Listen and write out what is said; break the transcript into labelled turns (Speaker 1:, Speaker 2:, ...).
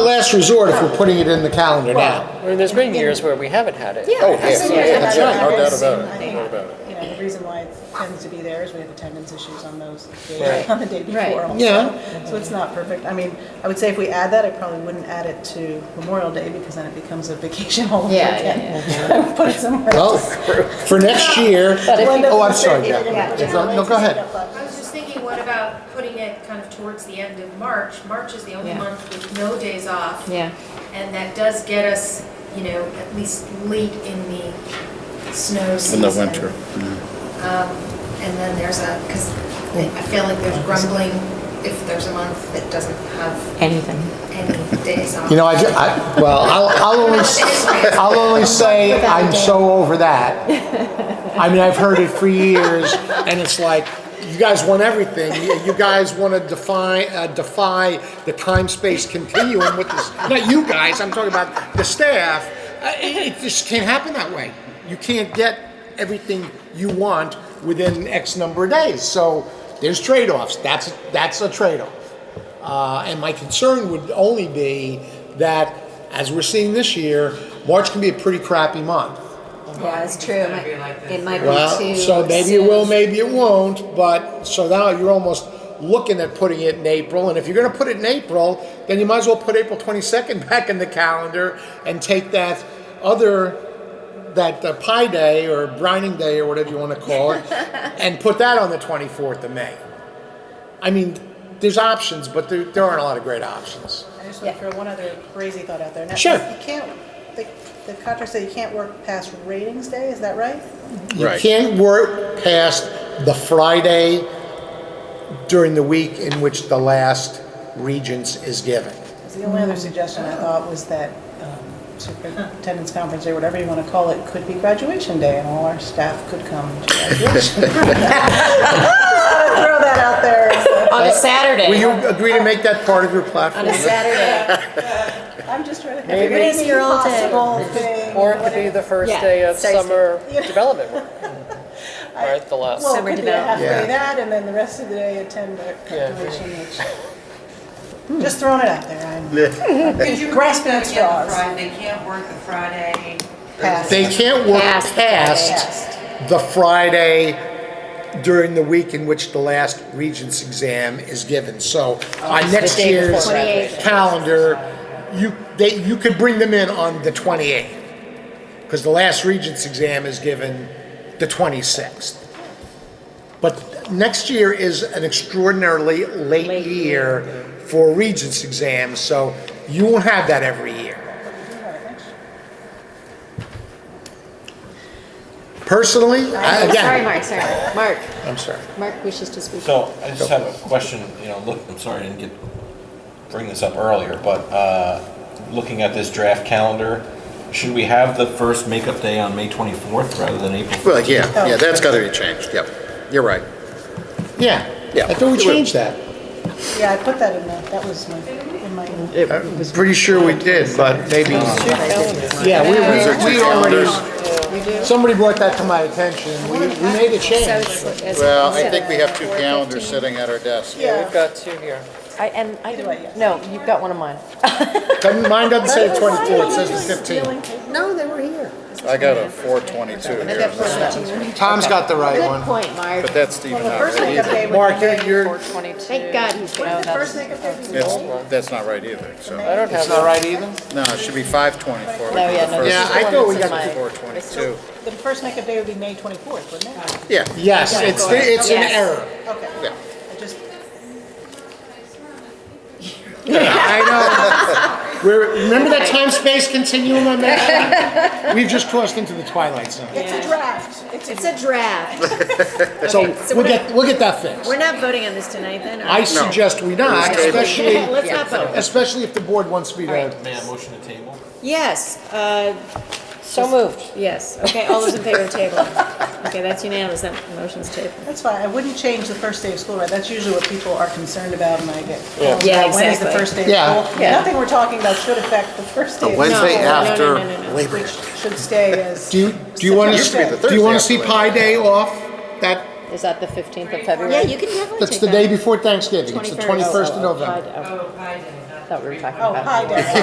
Speaker 1: last resort if we're putting it in the calendar now.
Speaker 2: Well, I mean, there's been years where we haven't had it.
Speaker 3: Yeah.
Speaker 4: Oh,
Speaker 3: I've
Speaker 4: yes,
Speaker 3: seen it.
Speaker 4: that's right, no doubt about
Speaker 3: I
Speaker 4: it,
Speaker 3: think,
Speaker 4: no doubt about it.
Speaker 3: You know, the reason why it tends to be there is we have attendance issues on those, days-
Speaker 2: Right.
Speaker 3: on the day before
Speaker 5: Right.
Speaker 3: also.
Speaker 1: Yeah.
Speaker 3: So it's not perfect. I mean, I would say if we add that, I probably wouldn't add it to Memorial Day because then it becomes a vacation holiday
Speaker 5: Yeah, yeah,
Speaker 3: again. I would put it somewhere
Speaker 1: Well,
Speaker 3: else.
Speaker 1: Oh, for next year,
Speaker 5: if you-
Speaker 1: oh, I'm sorry,
Speaker 3: Yeah,
Speaker 1: yeah.
Speaker 3: yeah.
Speaker 1: No, go ahead.
Speaker 6: I was just thinking, what about putting it kind of towards the end of March? March is the only
Speaker 5: Yeah.
Speaker 6: month with no days off.
Speaker 5: Yeah.
Speaker 6: And that does get us, you know, at least late in the snow
Speaker 4: In
Speaker 6: season. Um,
Speaker 4: the winter.
Speaker 6: And then there's a, because I feel like there's grumbling if there's a month that doesn't have
Speaker 5: Anything.
Speaker 6: any days off.
Speaker 1: You know, I, ju- I- well, I'll, I'll only, s- I'll only say I'm so over that. I mean, I've heard it for years, and it's like, you guys want everything. You- You guys want to defy, uh, defy the time-space continuum with this, not you guys, I'm talking about the staff. Uh, It, it just can't happen that way. You can't get everything you want within X number of days. So there's trade-offs. That's, that's a trade-off. Uh, And my concern would only be that, as we're seeing this year, March can be a pretty crappy month.
Speaker 5: Yeah, it's true. It might- It might be
Speaker 1: Well,
Speaker 5: too.
Speaker 1: so maybe it
Speaker 5: soon.
Speaker 1: will, maybe it won't, but, so now you're almost looking at putting it in April, and if you're gonna put it in April, then you might as well put April twenty-second back in the calendar and take that other, that uh, pie day or brining day or whatever you wanna call it, and put that on the twenty-fourth of May. I mean, there's options, but there, there aren't a lot of great options.
Speaker 3: I just want to throw one other crazy thought out there. and that's
Speaker 1: Sure.
Speaker 3: You can't, the, the contract say you can't work past ratings day, is that right?
Speaker 1: You
Speaker 4: Right.
Speaker 1: can't work past the Friday during the week in which the last regents is given.
Speaker 3: 'Cause The only other suggestion I thought was that um, superintendent's conference day, whatever you want to call it, could be graduation day and all our staff could come to graduation. Just thought I'd Throw that out there.
Speaker 5: On a Saturday.
Speaker 1: Will you agree to make that part of your platform?
Speaker 5: On a Saturday.
Speaker 3: I'm just trying to think
Speaker 5: Maybe.
Speaker 3: of any
Speaker 5: Your old day.
Speaker 3: possible thing.
Speaker 2: Or it could be the first
Speaker 5: Yeah,
Speaker 2: day of
Speaker 5: precisely.
Speaker 2: summer development work. Right, the last.
Speaker 3: Well, it
Speaker 5: Summer
Speaker 3: could be a half
Speaker 1: development.
Speaker 3: day that and then the rest of the day attend the graduation, which, just throwing it out there. I'm
Speaker 7: Could you
Speaker 3: Grasping
Speaker 7: repeat
Speaker 3: at
Speaker 7: that again,
Speaker 3: straws.
Speaker 7: Fri- They can't work the Friday.
Speaker 3: past.
Speaker 1: They can't work
Speaker 5: Past the
Speaker 1: past the Friday during the week in which the last regents exam is given. So on next
Speaker 5: Oh, day before
Speaker 1: year's
Speaker 5: graduation.
Speaker 1: calendar, you, they, you could bring them in on the 28th. Because the last regents exam is given the 26th. But next year is an extraordinarily late year for regents exams, so you won't have that every year. Personally, I-
Speaker 5: Sorry,
Speaker 1: again,
Speaker 5: Mark, sorry. Mark,
Speaker 1: I'm sorry.
Speaker 5: Mark wishes to speak.
Speaker 8: So I just have a question, you know, look, I'm sorry I didn't get, bring this up earlier, but uh, looking at this draft calendar, should we have the first makeup day on May 24th rather than April 15th?
Speaker 4: Well, yeah, yeah, that's gotta be changed, yep, you're right.
Speaker 1: Yeah.
Speaker 4: Yeah.
Speaker 1: I thought we changed that.
Speaker 3: Yeah, I put that in the, that was my, in my.
Speaker 1: I'm pretty sure we did, but maybe. Yeah,
Speaker 4: Those are
Speaker 1: we, we,
Speaker 4: two
Speaker 1: we already,
Speaker 4: calendars.
Speaker 1: somebody brought that to my attention. We, we made a change.
Speaker 4: Well, I think we have two calendars sitting at our desk.
Speaker 2: We've got two here.
Speaker 5: I, and I
Speaker 3: Either way, yes.
Speaker 5: no, you've got one of mine.
Speaker 1: Doesn't- Mine doesn't say the 24th, it says the 15th.
Speaker 5: No, they were here.
Speaker 4: I got a four twenty-two here,
Speaker 1: Tom's got the right
Speaker 5: Good
Speaker 1: one.
Speaker 5: point, Mark.
Speaker 4: but that's even
Speaker 3: The
Speaker 4: not
Speaker 3: first
Speaker 4: right
Speaker 3: makeup
Speaker 4: either.
Speaker 3: day would
Speaker 1: Mark,
Speaker 3: be
Speaker 1: you're- you're,
Speaker 5: Thank God he's
Speaker 3: the
Speaker 5: got
Speaker 3: first
Speaker 5: that.
Speaker 3: makeup day. would be
Speaker 4: It's,
Speaker 3: May.
Speaker 4: that's not right either, so,
Speaker 2: I don't
Speaker 1: it's
Speaker 2: have
Speaker 1: not
Speaker 2: that.
Speaker 1: right either?
Speaker 4: no, it should be five twenty-four.
Speaker 5: No, yeah, no,
Speaker 1: Yeah,
Speaker 5: this is
Speaker 1: I
Speaker 5: the one
Speaker 1: thought we
Speaker 5: that's in
Speaker 1: got
Speaker 5: my-
Speaker 4: Four twenty-two,
Speaker 3: The first makeup day would be May 24th, wouldn't it?
Speaker 4: yeah,
Speaker 1: Yes, it's, it's an
Speaker 5: Yes.
Speaker 1: error.
Speaker 3: Okay.
Speaker 4: yeah.
Speaker 3: I just,
Speaker 1: I know. We're, remember that time-space continuum I mentioned? We've just crossed into the twilight zone.
Speaker 3: it's a draft. It's a
Speaker 5: It's a draft.
Speaker 1: So
Speaker 5: Okay, so
Speaker 1: we'll
Speaker 5: we're
Speaker 1: get, we'll get that fixed.
Speaker 5: We're not voting on this tonight, then?
Speaker 1: I suggest we not,
Speaker 4: table.
Speaker 1: especially,
Speaker 5: Let's not vote.
Speaker 1: especially if the board wants me to.
Speaker 8: May I motion to table?
Speaker 5: Yes, uh,
Speaker 2: So moved.
Speaker 5: yes. Okay, all those in favor of table. Okay, that's unanimous, that motion's tabled.
Speaker 3: That's fine, I wouldn't change the first day of school, right? That's usually what people are concerned about and I get.
Speaker 5: Yeah,
Speaker 3: When is the
Speaker 5: exactly.
Speaker 3: first day
Speaker 1: Yeah.
Speaker 3: of school?
Speaker 5: Yeah.
Speaker 3: Nothing we're talking about should affect the first day. of
Speaker 5: No,
Speaker 4: Wednesday
Speaker 5: no,
Speaker 3: school,
Speaker 5: no, no,
Speaker 4: after
Speaker 5: no, no, no.
Speaker 4: Labor Day.
Speaker 3: Which should stay as.
Speaker 1: Do you, do you want
Speaker 4: Used to be
Speaker 1: to,
Speaker 4: the
Speaker 1: do you want to see
Speaker 4: Thursday after
Speaker 1: Pi Day off? That,
Speaker 5: Is that the 15th of February?
Speaker 7: Yeah,
Speaker 5: you can definitely
Speaker 1: that's
Speaker 5: oh,
Speaker 1: the Oh, day before Thanksgiving, it's the 21st of November.
Speaker 7: Oh, Friday, not
Speaker 5: Thought we were talking
Speaker 3: Oh,
Speaker 5: about.
Speaker 3: hi, Dad.